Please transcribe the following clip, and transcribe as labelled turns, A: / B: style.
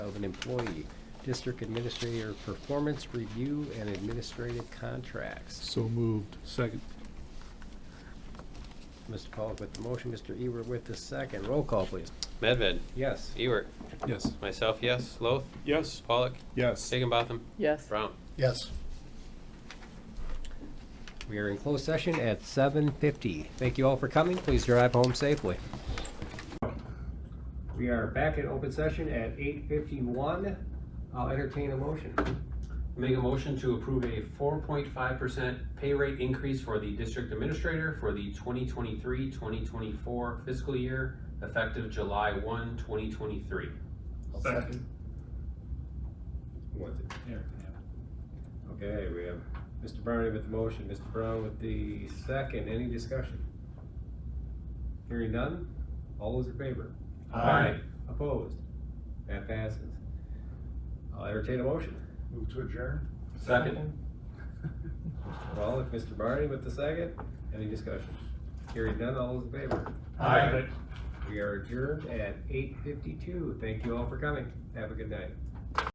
A: an employee. District Administrator Performance Review and Administrative Contracts.
B: So moved.
C: Second.
A: Mr. Pollock with the motion, Mr. Eber with the second. Roll call, please.
D: Medved,
A: Yes.
D: Ewart,
C: Yes.
D: myself, yes. Loth,
C: Yes.
D: Pollock,
B: Yes.
D: Higginbotham,
E: yes.
D: Brown.
F: yes.
A: We are in closed session at seven fifty. Thank you all for coming. Please drive home safely. We are back in open session at eight fifty-one. I'll entertain a motion.
D: Make a motion to approve a four point five percent pay rate increase for the district administrator for the 2023-2024 fiscal year, effective July 1, 2023.
C: Second.
A: What's it? Okay, we have Mr. Barney with the motion, Mr. Brown with the second. Any discussion? Hearing none? All those in favor?
D: Aye.
A: Opposed? That passes. I'll entertain a motion.
F: Move to adjourn?
D: Second.
A: Well, if Mr. Barney with the second, any discussion? Hearing none, all those in favor?
F: Aye.
A: We are adjourned at eight fifty-two. Thank you all for coming. Have a good night.